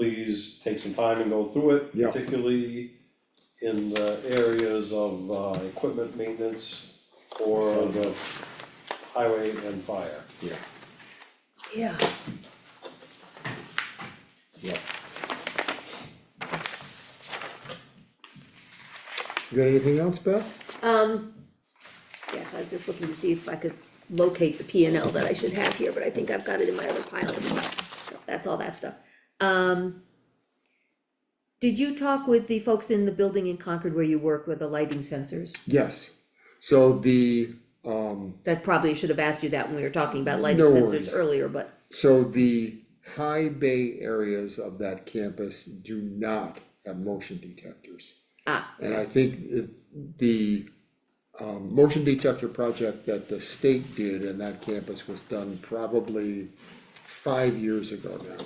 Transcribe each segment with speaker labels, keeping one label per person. Speaker 1: please take some time and go through it.
Speaker 2: Yeah.
Speaker 1: Particularly in the areas of, uh, equipment maintenance or the highway and fire.
Speaker 2: yeah,
Speaker 3: Yeah.
Speaker 2: yeah. You Got anything else, Beth?
Speaker 3: Um, yes, I was just looking to see if I could locate the P and L that I should have here, but I think I've got it in my other pile of stuff. So That's all that stuff. Um, did you talk with the folks in the building in Concord where you work with the lighting sensors?
Speaker 2: Yes, so the, um,
Speaker 3: That probably should have asked you that when we were talking about lighting
Speaker 2: No
Speaker 3: sensors
Speaker 2: worries.
Speaker 3: earlier, but,
Speaker 2: So the high bay areas of that campus do not have motion detectors.
Speaker 3: ah,
Speaker 2: And I think it- the um motion detector project that the state did in that campus was done probably five years ago now.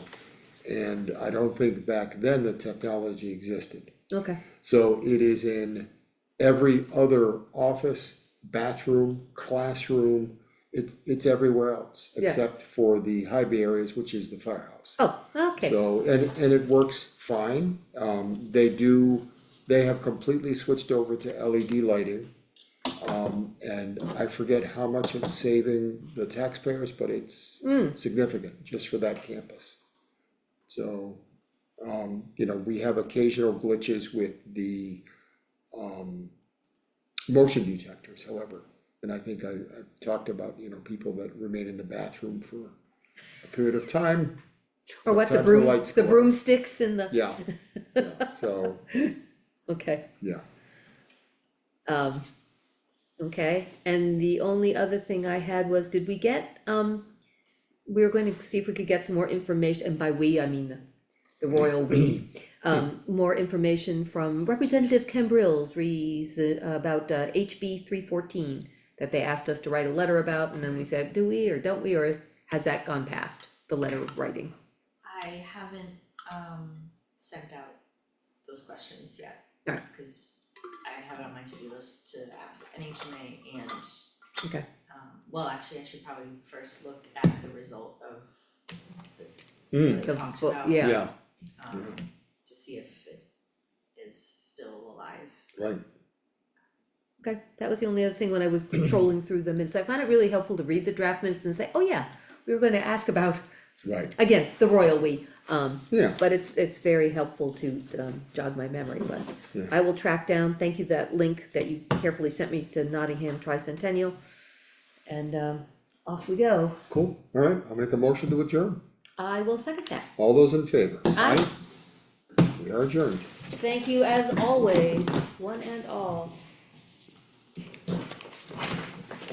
Speaker 2: And I don't think back then the technology existed.
Speaker 3: okay,
Speaker 2: So it is in every other office, bathroom, classroom, it, it's everywhere else,
Speaker 3: Yeah.
Speaker 2: except for the high bay areas, which is the firehouse.
Speaker 3: oh, okay,
Speaker 2: So, and, and it works fine, um, they do, they have completely switched over to LED lighting. Um, and I forget how much it's saving the taxpayers, but it's significant just for that campus. So, um, you know, we have occasional glitches with the, um, motion detectors, however. And I think I, I talked about, you know, people that remain in the bathroom for a period of time,
Speaker 3: or what,
Speaker 2: sometimes
Speaker 3: the
Speaker 2: the
Speaker 3: broom,
Speaker 2: lights
Speaker 3: the
Speaker 2: go out.
Speaker 3: broomsticks and the.
Speaker 2: yeah, yeah, so,
Speaker 3: Okay.
Speaker 2: yeah,
Speaker 3: Um, okay, and the only other thing I had was, did we get, um, we were going to see if we could get some more information, and by we, I mean the, the royal we. Um, more information from Representative Cambrils rees about uh, HB three fourteen that they asked us to write a letter about, and then we said, do we or don't we, or has that gone past the letter of writing?
Speaker 4: I haven't um sent out those questions yet.
Speaker 3: Alright.
Speaker 4: Cause I have it on my to-do list to ask NHMA and
Speaker 3: Okay,
Speaker 4: um, well, actually, I should probably first look at the result of the
Speaker 2: Mm.
Speaker 4: what
Speaker 3: The
Speaker 4: I talked
Speaker 3: vote,
Speaker 4: about,
Speaker 3: yeah.
Speaker 2: yeah,
Speaker 4: um, to see if it is still alive.
Speaker 2: right,
Speaker 3: okay, that was the only other thing when I was patrolling through the minutes, I found it really helpful to read the draft minutes and say, oh yeah, we were gonna ask about
Speaker 2: right,
Speaker 3: again, the royal we, um,
Speaker 2: yeah,
Speaker 3: but it's, it's very helpful to, um, jog my memory, but
Speaker 2: Yeah.
Speaker 3: I will track down, thank you, that link that you carefully sent me to Nottingham Tricentennial. And, um, off we go.
Speaker 2: cool, alright, I'll make a motion to adjourn,
Speaker 3: I will second that.
Speaker 2: all those in favor?
Speaker 3: Aye.
Speaker 2: We are adjourned.
Speaker 3: Thank you as always, one and all.